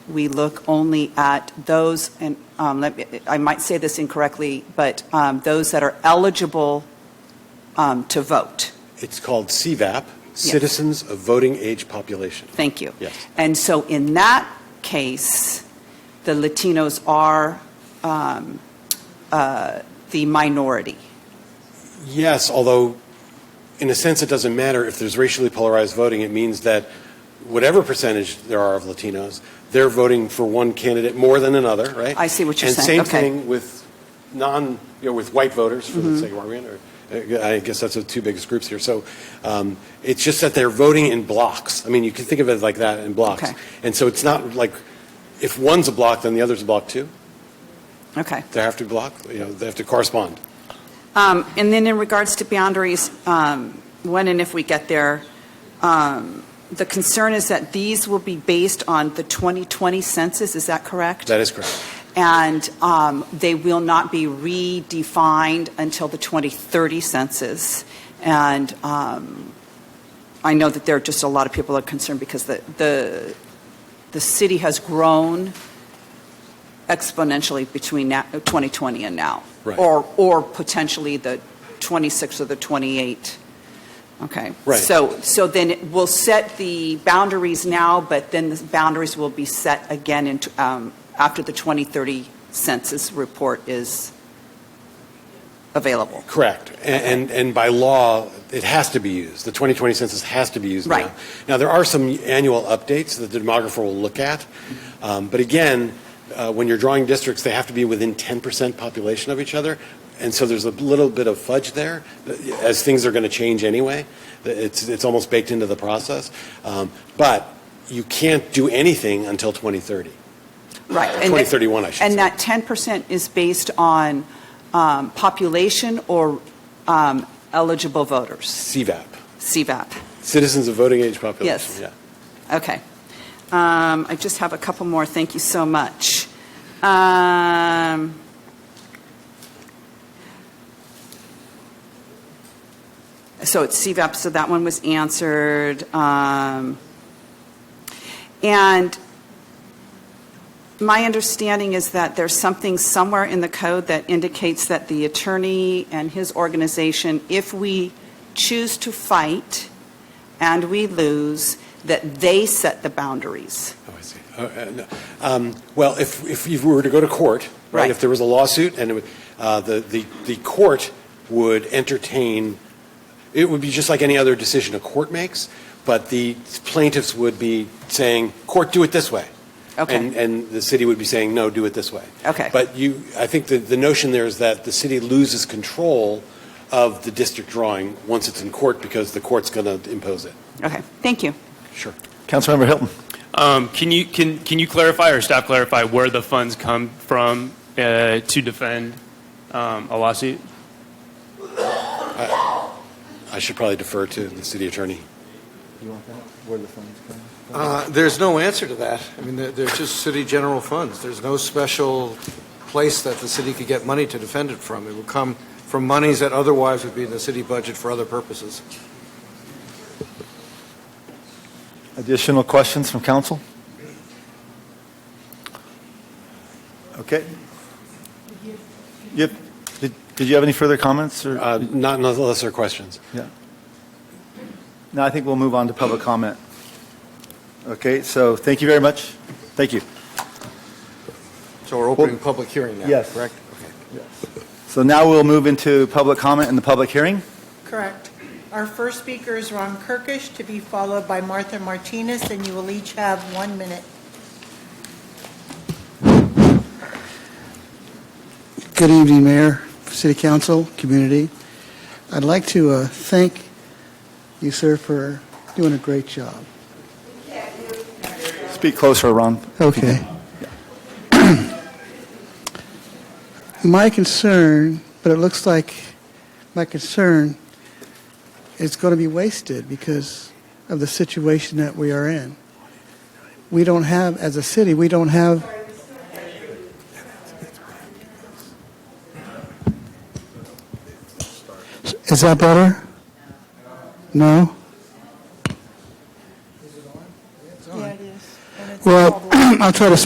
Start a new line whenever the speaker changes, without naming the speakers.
we look only at those, and um, let me- I might say this incorrectly, but um, those that are eligible um, to vote.
It's called CVAP, Citizens of Voting Age Population.
Thank you.
Yes.
And so in that case, the Latinos are um, uh, the minority.
Yes, although in a sense it doesn't matter if there's racially polarized voting. It means that whatever percentage there are of Latinos, they're voting for one candidate more than another, right?
I see what you're
and
saying.
same
Okay.
thing with non, you know, with white voters for the
Mm-hmm.
sake of argument. Or, uh, I guess that's the two biggest groups here. So um, it's just that they're voting in blocks. I mean, you can think of it like that in blocks.
Okay.
And so it's not like if one's a block, then the other's a block too.
Okay.
They have to block. You know, they have to correspond.
Um, And then in regards to boundaries, um, when and if we get there, um, the concern is that these will be based on the 2020 census, is that correct?
That is correct.
And um, they will not be redefined until the 2030 census. And um, I know that there are just a lot of people that are concerned because the, the, the city has grown exponentially between now- 2020 and now.
Right.
Or, or potentially the 26 or the 28. Okay.
Right.
So, so then it- we'll set the boundaries now, but then the boundaries will be set again in, t- um, after the 2030 census report is available.
Correct. A- And, and by law, it has to be used. The 2020 census has to be used
Right.
now. Now, there are some annual updates that the demographer will look at. Um, But again, uh, when you're drawing districts, they have to be within 10% population of each other. And so there's a little bit of fudge there, uh, as things are going to change anyway. It's, it's almost baked into the process. Um, But you can't do anything until 2030.
Right. And that-
2031, I should
And
say.
that 10% is based on um, population or um, eligible voters,
CVAP,
CVAP.
Citizens of Voting Age Population.
Yes.
Yeah.
Okay. Um, I just have a couple more. Thank you so much. Um, So it's CVAP, so that one was answered. Um, And my understanding is that there's something somewhere in the code that indicates that the attorney and his organization, if we choose to fight and we lose, that they set the boundaries.
Oh, I see. Uh, uh, no. Um, Well, if, if you were to go to court, right,
Right.
if there was a lawsuit, and it would- uh, the, the, the court would entertain, it would be just like any other decision a court makes, but the plaintiffs would be saying, court, do it this way. And,
Okay,
and the city would be saying, no, do it this way.
okay.
But you, I think the, the notion there is that the city loses control of the district drawing once it's in court, because the court's going to impose it.
Okay, thank you.
Sure.
Councilmember Hilton.
Um, Can you, can, can you clarify or staff clarify where the funds come from uh, to defend um, a lawsuit?
I should probably defer to the city attorney.
You want that? Where the funds come?
Uh, There's no answer to that. I mean, they're- they're just city general funds. There's no special place that the city could get money to defend it from. It would come from monies that otherwise would be in the city budget for other purposes.
Additional questions from council? Okay. Yep. Did did you have any further comments? or-
Uh, Not unless there are questions.
No, I think we'll move on to public comment. Okay, so thank you very much. Thank you.
So we're opening public hearing now,
Yes.
correct?
So now we'll move into public comment and the public hearing.
Correct. Our first speaker is Ron Kirkish, to be followed by Martha Martinez, and you will each have one minute.
Good evening, Mayor, City Council, community. I'd like to uh, thank you, sir, for doing a great job.
Speak closer, Ron.
Okay. My concern, but it looks like my concern is going to be wasted because of the situation that we are in. We don't have, as a city, we don't have. Is that better? No?
Yeah, it is. And it's
Well,
called-
I'll try to